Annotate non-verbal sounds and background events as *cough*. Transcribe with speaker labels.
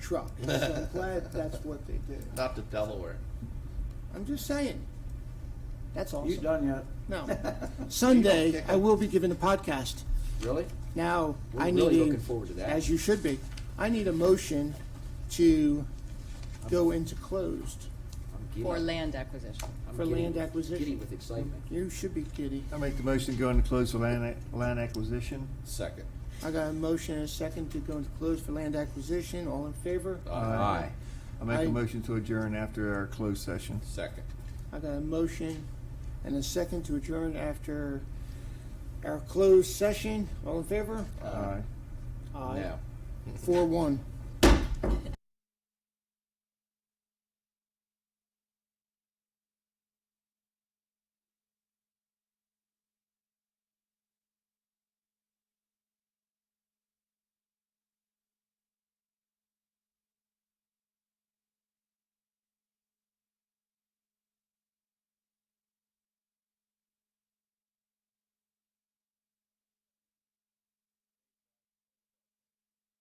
Speaker 1: truck. So I'm glad that's what they did.
Speaker 2: Not to Delaware.
Speaker 1: I'm just saying. That's awesome.
Speaker 3: You done yet?
Speaker 2: *laughs*
Speaker 1: No.
Speaker 2: You
Speaker 1: Sunday,
Speaker 2: don't kick
Speaker 1: I
Speaker 2: it.
Speaker 1: will be giving a podcast.
Speaker 2: Really?
Speaker 1: Now,
Speaker 2: We're
Speaker 1: I need a...
Speaker 2: really looking forward to that.
Speaker 1: As you should be. I need a motion to go into closed.
Speaker 2: I'm giddy.
Speaker 4: for land acquisition.
Speaker 2: I'm
Speaker 1: for
Speaker 2: giddy
Speaker 1: land
Speaker 2: with-
Speaker 1: acquisition.
Speaker 2: Giddy with excitement.
Speaker 1: You should be giddy.
Speaker 5: I make the motion to go into close the land, ac- land acquisition.
Speaker 2: Second.
Speaker 1: I got a motion and a second to go into closed for land acquisition. All in favor?
Speaker 2: Oh. Aye.
Speaker 5: I make
Speaker 1: I-
Speaker 5: a motion to adjourn after our closed session.
Speaker 2: Second.
Speaker 1: I got a motion and a second to adjourn after our closed session. All in favor?
Speaker 2: Aye.
Speaker 5: Aye.
Speaker 1: Aye.
Speaker 2: Now.
Speaker 1: Four one.